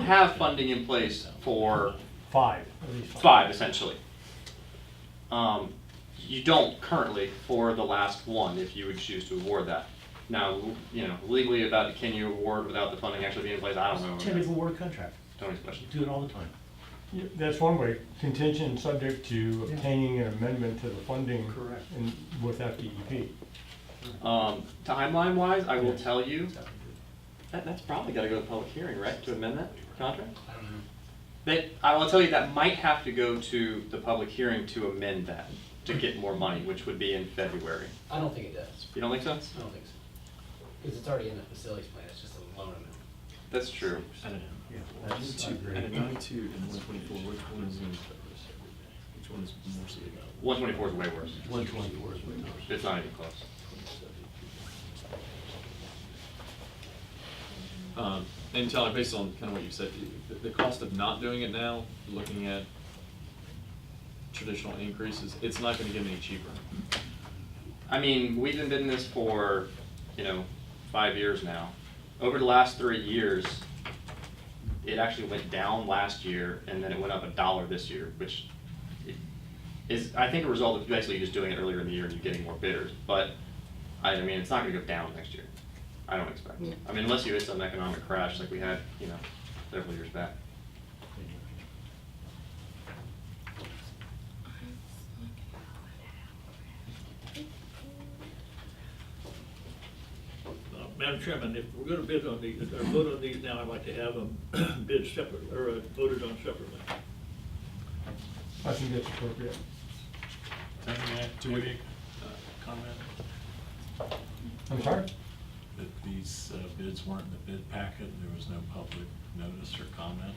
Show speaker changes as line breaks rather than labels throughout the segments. have funding in place for
Five, at least five.
five essentially. Um, you don't currently for the last one if you would choose to award that. Now, you know, legally about can you award without the funding actually being in place, I don't know.
Tentative award contract,
Tony's question.
do it all the time.
Yeah, That's one way, contingent and subject to
Yeah.
obtaining an amendment to the funding.
Correct.
in- with E FDEP.
Um, timeline wise, I will tell you, that, that's probably gotta go to public hearing, right, to amend that contract?
I don't know.
That, I will tell you, that might have to go to the public hearing to amend that, to get more money, which would be in February.
I don't think it does.
You don't think so?
I don't think so. Because it's already in the facilities plan, it's just a loan amount.
That's true.
Yeah,
Item
that's, I
two,
agree.
item ninety-two and one twenty-four, which one is, in- which one is more significant?
One twenty-four is way worse.
One twenty-four is what it is.
It's not even close.
Um, and Tyler, based on kind of what you said, the, the cost of not doing it now, looking at traditional increases, it's not gonna get any cheaper.
I mean, we've been doing this for, you know, five years now. Over the last three years, it actually went down last year and then it went up a dollar this year, which is, I think, a result of basically just doing it earlier in the year and you getting more bidders. But, I, I mean, it's not gonna go down next year. I don't expect. I mean, unless you hit some economic crash like we had, you know, several years back.
Uh, Madam Chairman, if we're gonna bid on these, or vote on these now, I'd like to have them bid separately, or uh, voted on separately.
I think that's appropriate.
Do we comment
I'm sorry?
that these uh, bids weren't in the bid packet, there was no public notice or comment?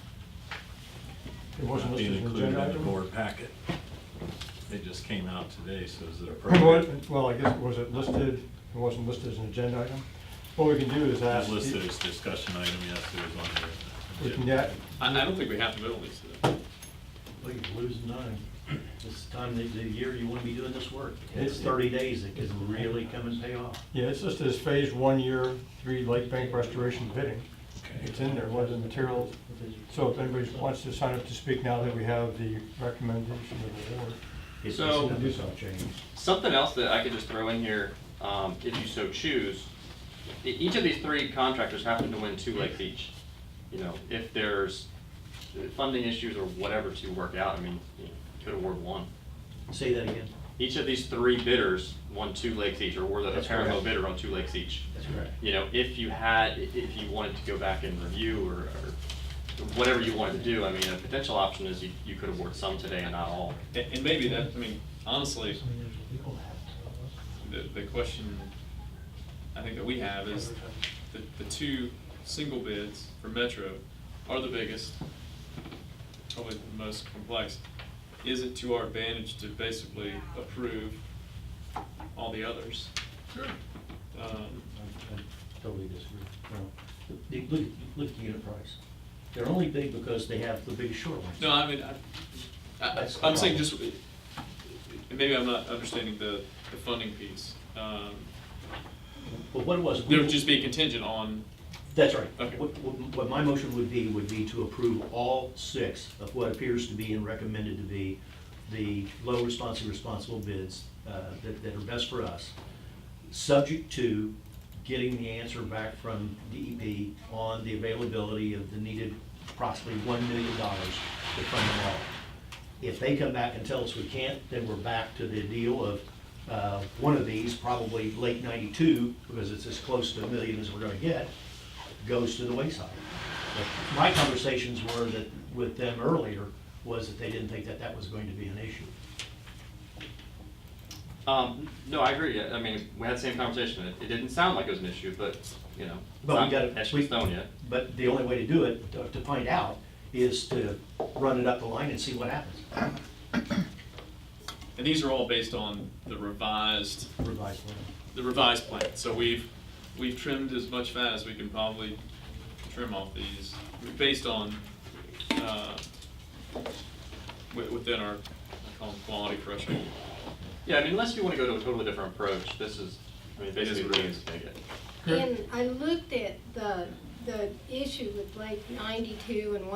It wasn't
Not being
listed as an
included
agenda
in the
item?
board packet. They just came out today, so is it appropriate?
What- Well, I guess, was it listed, it wasn't listed as an agenda item? What we can do is ask.
It's listed as discussion item, yes, it was on there.
We can get,
I, I don't think we have to vote on these today.
Well, you're losing time. This time, the, the year you wanna be doing this work, it's
It-
thirty days, it can really come and pay off.
yeah, it's listed as phase one, year three, Lake Bank restoration bidding. It's in there, what are the materials? So if anybody wants to sign up to speak now that we have the recommendation of the board,
It's-
So-
it's- it's all changed.
Something else that I could just throw in here, um, if you so choose, e- each of these three contractors happen to win two Lake Beach. You know, if there's uh, funding issues or whatever to work out, I mean, you could award one.
Say that again.
Each of these three bidders won two lakes each, or were the
That's
apparent low
correct.
bidder on two lakes each.
That's correct.
You know, if you had, i- if you wanted to go back and review or, or whatever you wanted to do, I mean, a potential option is you, you could award some today and not all.
And, and maybe that, I mean, honestly, the, the question I think that we have is the, the two single bids for Metro are the biggest, probably the most complex. Is it to our advantage to basically approve all the others? Sure. Um,
I Totally disagree. No. The- Look, look at the unit price. They're only big because they have the big shoreline.
no, I mean, I, I,
That's the
I'm saying
problem.
just, maybe I'm not understanding the, the funding piece. Um,
But what it was. we-
there would just be contingent on
That's right.
Okay.
What, what- what my motion would be, would be to approve all six of what appears to be and recommended to be the low responsive responsible bids uh, that, that are best for us, subject to getting the answer back from DEP on the availability of the needed approximately one million dollars to fund them all. If they come back and tell us we can't, then we're back to the deal of uh, one of these, probably late ninety-two, because it's as close to a million as we're gonna get, goes to the wayside. But My conversations were that, with them earlier, was that they didn't think that that was going to be an issue.
Um, no, I agree, I I mean, we had the same conversation, it, it didn't sound like it was an issue, but, you know, it's
But we
not
gotta-
etched
we-
in stone yet.
But the only way to do it, to to find out, is to run it up the line and see what happens.
And these are all based on the revised,
Revised plan.
the revised plan. So we've, we've trimmed as much fat as we can probably trim off these, based on, uh, wi- within our, I call them quality threshold.
Yeah, I mean, unless you wanna go to a totally different approach, this is, I mean,
It is
basically
what it
what it is
is.
to take it.
And I looked at the the issue with Lake ninety-two and one